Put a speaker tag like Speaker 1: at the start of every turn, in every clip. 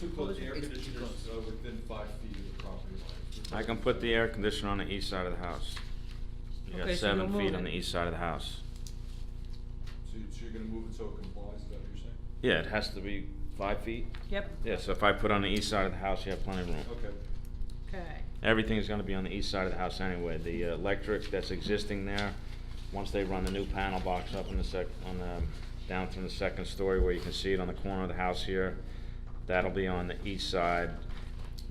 Speaker 1: too close, the air
Speaker 2: It's too
Speaker 1: conditioner's
Speaker 2: close.
Speaker 1: uh, within five feet of the property line.
Speaker 3: I can put the air conditioner on the east side of the house. You got
Speaker 2: Okay, so
Speaker 3: seven
Speaker 2: you'll
Speaker 3: feet
Speaker 2: move
Speaker 3: on
Speaker 2: it.
Speaker 3: the east side of the house.
Speaker 1: So you- so you're gonna move it so it complies, is that what you're saying?
Speaker 3: Yeah, it has to be five feet.
Speaker 2: Yep.
Speaker 3: Yeah, so if I put on the east side of the house, you have plenty of room.
Speaker 1: Okay,
Speaker 2: Okay.
Speaker 3: Everything's gonna be on the east side of the house anyway. The uh, electric that's existing there, once they run the new panel box up in the sec, on the, down from the second story where you can see it on the corner of the house here, that'll be on the east side.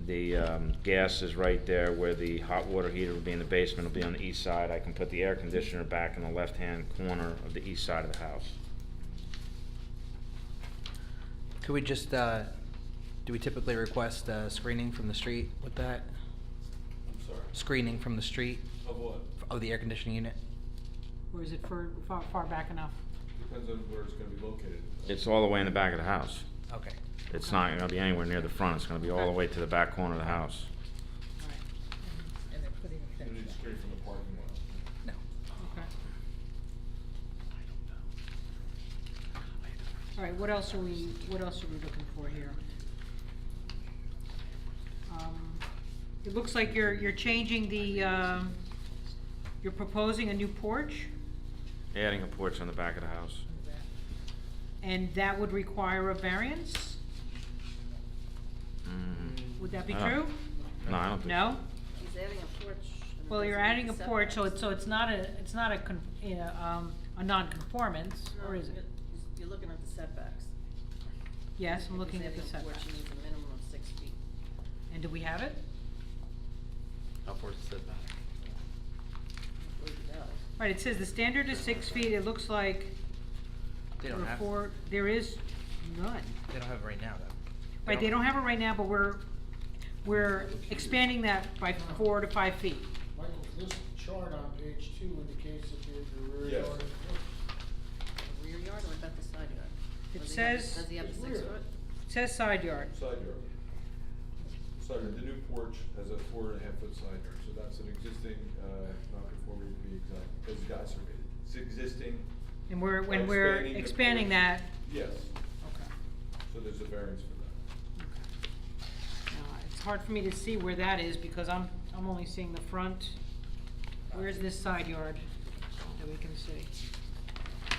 Speaker 3: The, um, gas is right there where the hot water heater will be in the basement, it'll be on the east side. I can put the air conditioner back in the left-hand corner of the east side of the house.
Speaker 4: Could we just, uh, do we typically request uh, screening from the street with that?
Speaker 1: I'm sorry.
Speaker 4: Screening from the street
Speaker 1: Of what?
Speaker 4: of the air conditioning unit?
Speaker 2: Or is it far, far, far back enough?
Speaker 1: Depends on where it's gonna be located.
Speaker 3: It's all the way in the back of the house.
Speaker 4: Okay.
Speaker 3: It's not gonna be anywhere near the front, it's gonna be all the way to the back corner of the house.
Speaker 2: Alright. And they're putting a
Speaker 1: You need to screen from the parking lot.
Speaker 4: No.
Speaker 2: Okay. Alright, what else are we, what else are we looking for here? Um, It looks like you're, you're changing the, um, you're proposing a new porch?
Speaker 3: Adding a porch on the back of the house.
Speaker 2: And that would require a variance?
Speaker 3: Mm.
Speaker 2: Would that be
Speaker 3: I
Speaker 4: Uh-huh.
Speaker 3: don't-
Speaker 2: true?
Speaker 3: No, I don't think.
Speaker 2: No?
Speaker 5: He's adding a porch. and it
Speaker 2: Well, you're
Speaker 5: doesn't meet
Speaker 2: adding a
Speaker 5: the
Speaker 2: porch, so it's,
Speaker 5: setbacks.
Speaker 2: so it's not a, it's not a, con- you know, um, a non-conformance,
Speaker 5: No,
Speaker 2: or is
Speaker 5: you're-
Speaker 2: it?
Speaker 5: You're looking at the setbacks.
Speaker 2: Yes, I'm
Speaker 5: If
Speaker 2: looking
Speaker 5: he's
Speaker 2: at the
Speaker 5: adding a porch,
Speaker 2: setbacks.
Speaker 5: he needs a minimum of six feet.
Speaker 2: And do we have it?
Speaker 6: Upwards setback.
Speaker 5: Where he goes.
Speaker 2: Right, it says the standard is six feet, it looks like
Speaker 4: They don't
Speaker 2: there are
Speaker 4: have-
Speaker 2: four, there is none.
Speaker 4: They don't have it right now, though.
Speaker 2: Right, they don't have it right now, but we're, we're expanding that by four to five feet.
Speaker 7: Michael, this chart on page two indicates that there's a rear
Speaker 1: Yes.
Speaker 7: yard.
Speaker 5: The Rear yard or about the side yard?
Speaker 2: It
Speaker 5: Does he have-
Speaker 2: says-
Speaker 5: Does he have a
Speaker 7: It's
Speaker 5: six
Speaker 7: rear.
Speaker 5: foot?
Speaker 2: It says side yard.
Speaker 1: Side yard. Side yard, the new porch has a four and a half foot side yard, so that's an existing, uh, non-conformity to be exact, because you guys surveyed it. It's existing.
Speaker 2: And we're,
Speaker 1: We're
Speaker 2: when we're
Speaker 1: expanding the
Speaker 2: expanding that.
Speaker 1: porch. Yes,
Speaker 2: Okay.
Speaker 1: so there's a variance for that.
Speaker 2: Uh, It's hard for me to see where that is because I'm, I'm only seeing the front. Where's this side yard that we can see?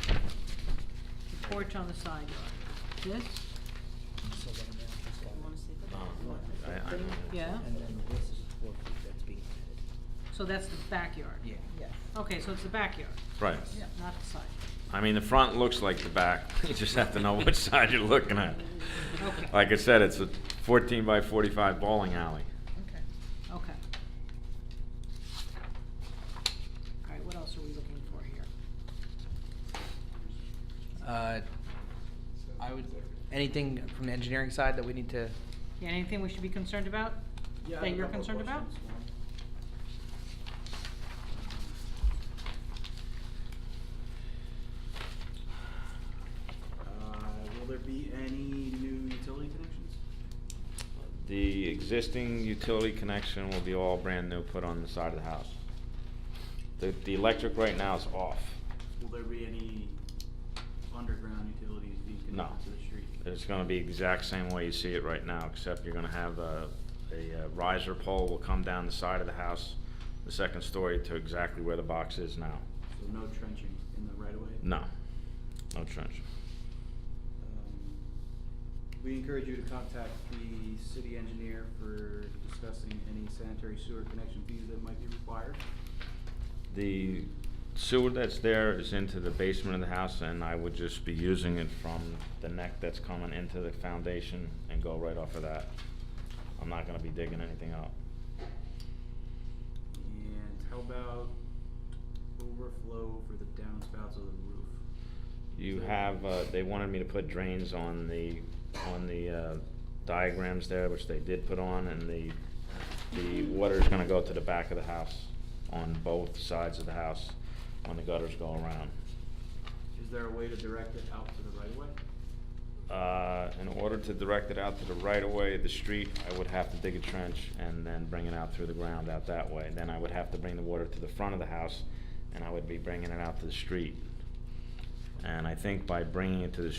Speaker 2: The porch on the side yard. This?
Speaker 5: You wanna see that?
Speaker 3: No,
Speaker 5: Oh.
Speaker 3: I- Uh, I don't.
Speaker 2: Yeah.
Speaker 4: And then this is four feet that's being added.
Speaker 2: So that's the backyard?
Speaker 4: Yeah.
Speaker 2: Okay, so it's the backyard,
Speaker 3: Right.
Speaker 2: not the side.
Speaker 3: I mean, the front looks like the back. You just have to know which side you're looking at.
Speaker 2: Okay.
Speaker 3: Like I said, it's a fourteen by forty-five bowling alley.
Speaker 2: Okay. Okay. All right, what else are we looking for here?
Speaker 4: Uh, I would, anything from the engineering side that we need to,
Speaker 2: Yeah, anything we should be concerned about?
Speaker 1: Yeah, I
Speaker 2: That
Speaker 1: have a
Speaker 2: you're
Speaker 1: couple of
Speaker 2: concerned about?
Speaker 1: questions.
Speaker 6: Uh, will there be any new utility connections?
Speaker 3: The existing utility connection will be all brand new, put on the side of the house. The, the electric right now is off.
Speaker 6: Will there be any underground utilities being
Speaker 3: No.
Speaker 6: connected to the street?
Speaker 3: It's gonna be exact same way you see it right now, except you're gonna have a, a uh, riser pole will come down the side of the house, the second story to exactly where the box is now.
Speaker 6: So no trenching in the right of way?
Speaker 3: No, no trench.
Speaker 6: Um, We encourage you to contact the city engineer for discussing any sanitary sewer connection fees that might be required.
Speaker 3: The sewer that's there is into the basement of the house, and I would just be using it from the neck that's coming into the foundation and go right off of that. I'm not gonna be digging anything up.
Speaker 6: And how about overflow for the downspouts of the roof?
Speaker 3: You
Speaker 6: Is there-
Speaker 3: have, uh, they wanted me to put drains on the, on the, uh, diagrams there, which they did put on, and the, the water's gonna go to the back of the house, on both sides of the house, when the gutters go around.
Speaker 6: Is there a way to direct it out to the right of way?
Speaker 3: Uh, in order to direct it out to the right of way of the street, I would have to dig a trench and then bring it out through the ground out that way. Then I would have to bring the water to the front of the house, and I would be bringing it out to the street. And I think by bringing it to the